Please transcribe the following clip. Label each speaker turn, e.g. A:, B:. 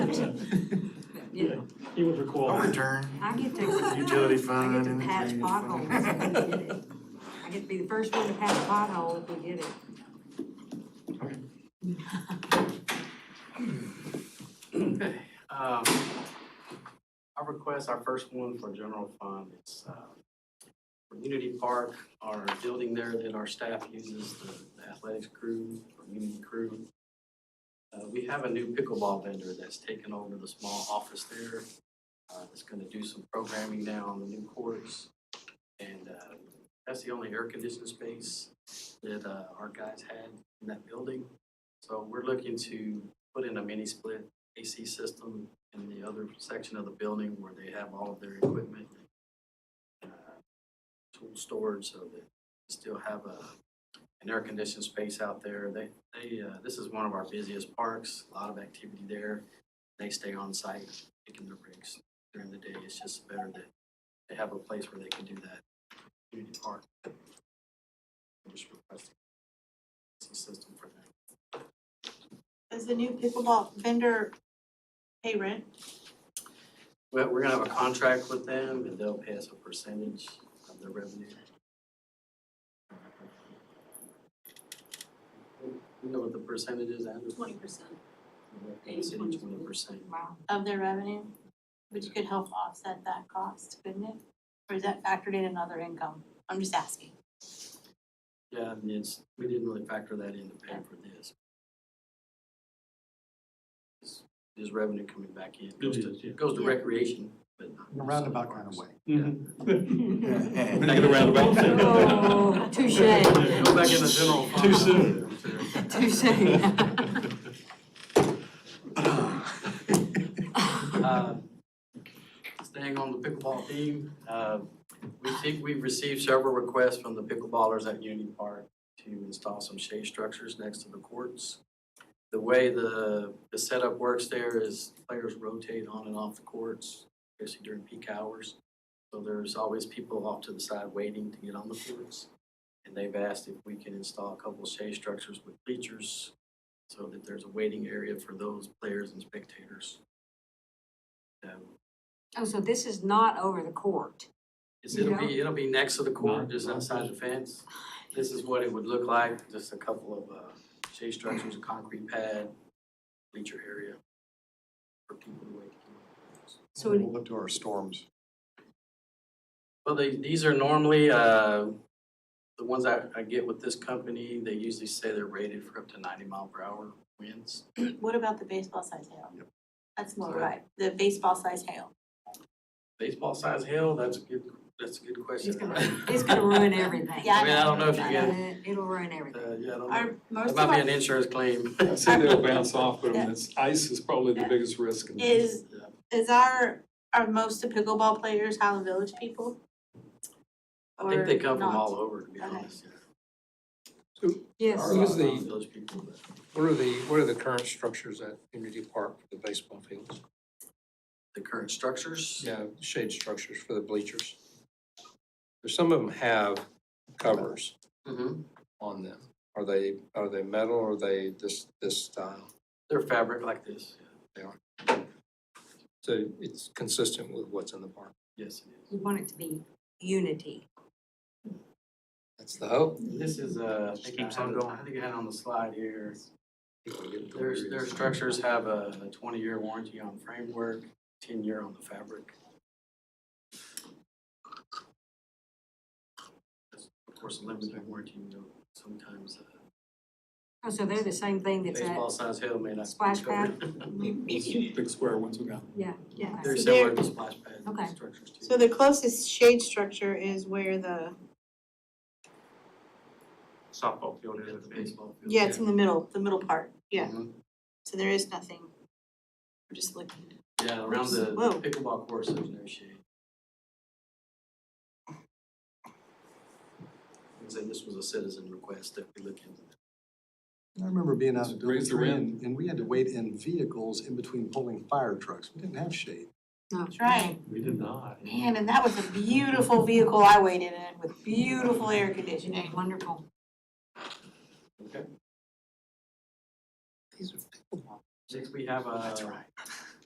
A: Yeah,
B: He would recall.
C: I'll
B: that.
C: return.
A: I get to,
C: Utility
A: I
C: fund
A: get to
C: and.
A: patch potholes when we get it. I get to be the first one to patch a pothole if we get it.
D: Okay, um, I request our first one for general fund, it's, uh, for Unity Park, our building there that our staff uses, the athletics crew, or Unity crew. Uh, we have a new pickleball vendor that's taken over the small office there, uh, that's gonna do some programming now on the new courts. And, uh, that's the only air conditioned space that, uh, our guys had in that building. So we're looking to put in a mini split AC system in the other section of the building where they have all of their equipment. uh, Tool storage so that they still have a, an air conditioned space out there. They, they, uh, this is one of our busiest parks, a lot of activity there. They stay on site picking their bricks during the day. It's just better that they have a place where they can do that. Community park. I'm Just requesting AC system for that.
E: Does the new pickleball vendor pay rent?
D: Well, we're gonna have a contract with them and they'll pay us a percentage of their revenue. You know what the percentage is, Andrew?
F: twenty percent.
D: Percentage, twenty percent.
A: Wow.
E: Of their revenue, which could help offset that cost, couldn't it? Or is that factored in another income? I'm just asking.
D: Yeah, I mean, it's, we didn't really factor that in to pay for this. This- This revenue coming back in goes
B: It is, yeah. Mm-hmm.
D: to, goes to
E: Yeah.
D: recreation, but not.
C: In a roundabout kind of way.
B: We're gonna get around about that.
A: Oh, touche.
D: Go back in the general fund.
B: Too soon.
A: Too soon.
D: Uh, Staying on the pickleball theme, uh, we think we've received several requests from the pickleballers at Unity Park to install some shade structures next to the courts. The way the, the setup works there is players rotate on and off the courts, especially during peak hours. So there's always people off to the side waiting to get on the courts. And they've asked if we can install a couple shade structures with bleachers so that there's a waiting area for those players and spectators. Um,
A: Oh, so this is not over the court.
D: It's, it'll
A: Yeah.
D: be, it'll be next to the court,
B: Not-
D: just
B: not
D: outside the fence. This is what it would look like, just a couple of, uh, shade structures, a concrete pad, bleacher area for people to wait.
A: So it-
C: We'll look to our storms.
D: Well, they, these are normally, uh, the ones I, I get with this company, they usually say they're rated for up to ninety mile per hour winds.
E: What about the baseball size hail?
C: Yep.
E: That's more
D: Sorry?
E: right, the baseball size hail.
D: Baseball size hail, that's a good, that's a good question.
A: it's gonna, it's gonna ruin everything.
E: Yeah,
D: I mean, I don't know if you
E: I
D: get, uh,
A: Uh, It'll ruin everything.
D: yeah, I don't know.
E: Are most
D: That
E: of
D: might be an
E: our,
D: insurance claim.
B: I see they'll bounce off, but I mean, it's, ice is probably the biggest risk. in this.
E: is, is our, are most of pickleball players Highland Village people?
D: I think they
E: or
D: come from
E: not?
D: all over, to be
E: Okay.
D: honest. yeah.
A: Yes.
G: Who's the-
D: Around Those people, but-
G: What are the, what are the current structures at Unity Park for the baseball fields?
D: the current structures.
G: Yeah, shade structures for the bleachers. There's Some of them have covers
D: Mhm.
G: on them. Are they, are they metal or are they this, this style?
D: They're fabric like this.
G: So it's consistent with what's in the park.
D: Yes, it
A: You want it to be unity.
G: That's the hope.
D: is. This is, uh, I think I
B: keeps
D: had
B: on
D: it-
B: going.
D: I think I had on the slide here.
G: People get it.
D: Their, their structures have a a twenty-year warranty on framework, ten-year on the fabric. Of course, a limited warranty, you know, sometimes uh,
A: Oh, so they're the same thing that's at,
D: baseball size hail may not. be
A: Splash pad?
D: covered.
B: Big square ones we got.
A: yeah, yeah. I
D: They're
E: So
A: see.
D: similar to splash pad
A: Okay.
D: structures too.
E: So the closest shade structure is where the,
B: Softball field
D: Yeah, the baseball field.
E: yeah, it's in the middle, the middle part, yeah.
D: Mhm.
E: So there is nothing. We're just looking.
D: Yeah, around the
E: Whoa.
D: pickleball course, there's no shade. I'd say this was a citizen request that we look into.
C: I remember being out at Dollar
B: Raise the
C: Tree
B: wind.
C: and, and we had to wait in vehicles in between pulling fire trucks. We didn't have shade.
A: No.
E: That's right.
B: We did not.
E: Man, and that was a beautiful vehicle I waited in with beautiful air
A: Yeah,
E: conditioning.
A: Wonderful.
D: uh, Okay. Next, we have a